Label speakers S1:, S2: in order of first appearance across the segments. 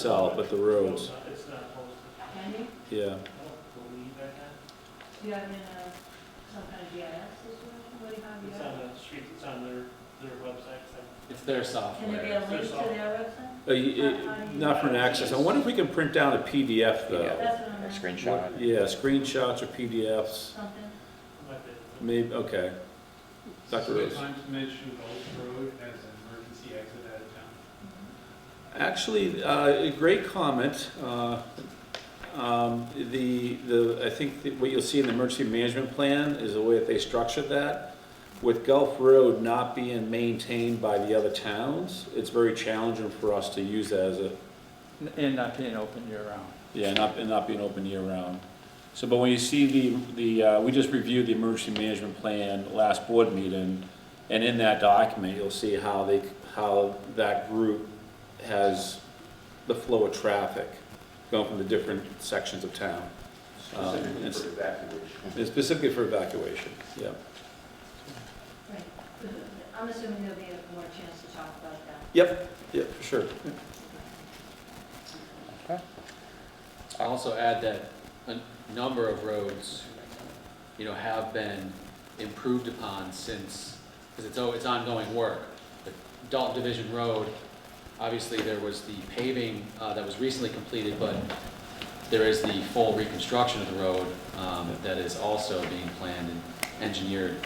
S1: South, but the roads,
S2: It's not posted.
S3: Handy?
S1: yeah.
S2: I don't believe I have.
S3: Do you have in a, some kind of GIS system, what do you have, you
S2: It's
S3: have?
S2: on the street, it's on their, their website. so-
S4: It's their
S3: Can there be
S4: software.
S3: a link to their
S1: Uh,
S3: website?
S1: y- y- Not for an access, I wonder if we can print down a PDF though.
S3: That's what I'm
S5: A
S3: asking,
S5: screenshot.
S1: Yeah, screenshots or PDFs,
S3: something,
S2: Might be-
S1: maybe, okay. Dr. Rose?
S6: Sometimes mention Gulf Road as an emergency exit out
S2: um,
S6: of town.
S1: Actually, uh, a great comment. Uh, um, The, the, I think that what you'll see in the emergency management plan is the way that they structured that. With Gulf Road not being maintained by the other towns, it's very challenging for us to use that as a,
S4: And not being open year-round.
S1: yeah, not, and not being open year-round. So, but when you see the, the, uh, we just reviewed the emergency management plan last board meeting, and in that document, you'll see how they, how that group has the flow of traffic going from the different sections of town, Um,
S7: Specifically
S1: it's-
S7: for evacuation.
S1: and specifically for evacuation, yeah.
S3: right. I'm assuming there'll be a more chance to talk about that.
S1: Yeah, for sure.
S4: Also add that a number of roads, you know, have been improved upon since, because it's, al- it's ongoing work. The Dalton Division Road, obviously, there was the paving uh, that was recently completed, but there is the full reconstruction of the road um, that is also being planned and engineered,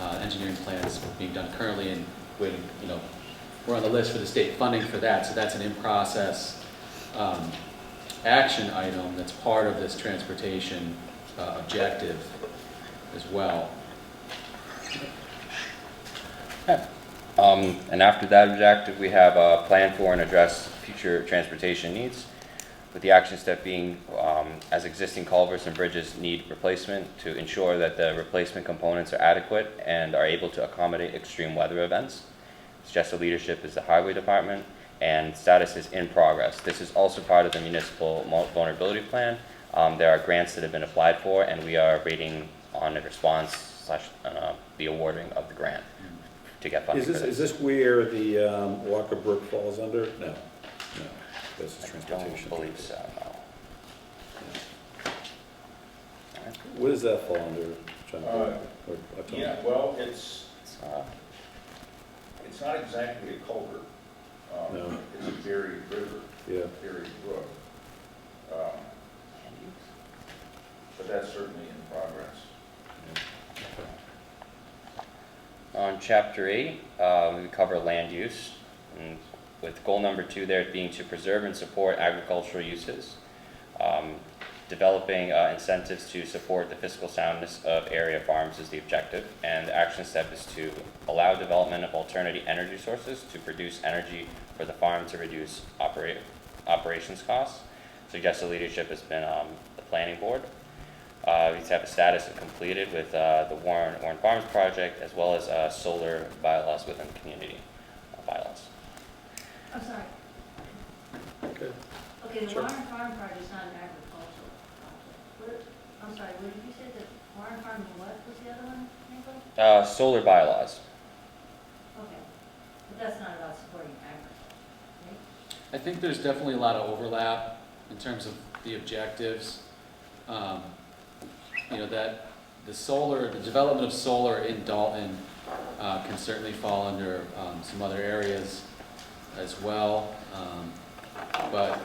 S4: uh, engineering plans being done currently, and when, you know, we're on the list for the state funding for that, so that's an in-process um, action item that's part of this transportation uh, objective as well.
S5: Um, and after that objective, we have a plan for and address future transportation needs, with the action step being, um, as existing culverts and bridges need replacement, to ensure that the replacement components are adequate and are able to accommodate extreme weather events. Suggested leadership is the highway department, and status is in progress. This is also part of the municipal mul- vulnerability plan. Um, there are grants that have been applied for, and we are waiting on a response slash, uh, the awarding of the grant to get funding
S1: Is
S5: for
S1: this,
S5: this.
S1: is this where the um, Walker Brook falls under? No, no, this is
S5: I don't
S1: transportation.
S5: believe so, no.
S1: What does that fall under, John?
S7: Uh,
S1: Or- or Tom?
S7: Yeah, well, it's,
S5: It's not-
S7: it's not exactly a culvert. Um,
S1: No.
S7: It's a buried river,
S1: Yeah.
S7: buried brook. Um, But that's certainly in progress.
S5: On chapter eight, uh, we cover land use, and with goal number two there being to preserve and support agricultural uses. Um, Developing uh, incentives to support the fiscal soundness of area farms is the objective, and the action step is to allow development of alternative energy sources to produce energy for the farm to reduce operate, operations costs. Suggested leadership has been, um, the planning board. Uh, we have a status of completed with, uh, the Warren, Warren Farms project, as well as, uh, solar bylaws within the community, uh, bylaws.
S3: I'm sorry,
S1: Okay.
S3: okay, the
S1: Sure.
S3: Warren Farm project is not an agricultural project. What, I'm sorry, what did you say, that Warren Farm and what was the other one, Michael?
S5: Uh, solar bylaws,
S3: Okay, but that's not about supporting agriculture, right?
S4: I think there's definitely a lot of overlap in terms of the objectives. Um, You know, that, the solar, the development of solar in Dalton uh, can certainly fall under um, some other areas as well. um, But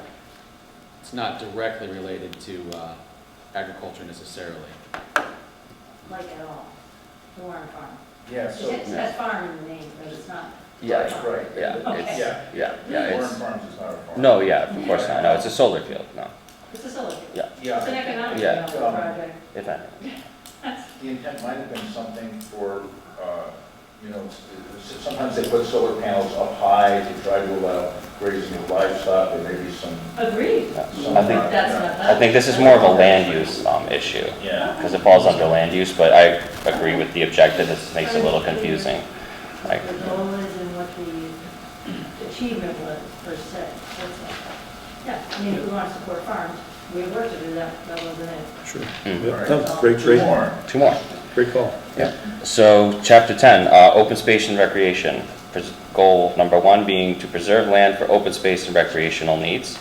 S4: it's not directly related to uh, agriculture necessarily.
S3: Like at all, the Warren Farm.
S7: Yeah, so,
S3: It has farm in the name, but it's not.
S5: Yeah,
S7: that's right.
S5: yeah, it's,
S7: Yeah.
S5: yeah, yeah,
S7: Warren
S5: it's,
S7: Farms is not a farm.
S5: no, yeah, of course not, no, it's a solar field, no,
S3: It's a solar. field.
S5: Yeah.
S3: It's an
S7: Yeah,
S3: economic
S5: Yeah.
S3: development project.
S5: if any.
S7: the intent might have been something for, uh, you know, s- s- sometimes they put solar panels up high to try to allow grazing of livestock, or maybe some,
S3: Agreed.
S7: some.
S5: I think-
S3: That's not that.
S5: I think this is more of a land use, um, issue,
S7: Yeah.
S5: because it falls under land use, but I agree with the objective, this makes it a little confusing.
S3: What
S5: Like,
S3: The goal is and what the achievement was per se. That's all. Yeah, I mean, if we want to support farms, we have work to do that, that wasn't it.
S1: Sure.
S5: Mm.
S1: Yeah, no, Great, great,
S7: Warren.
S5: two more.
S1: great call.
S5: So, chapter 10, uh, open space and recreation. Pres- Goal number one being to preserve land for open space and recreational needs.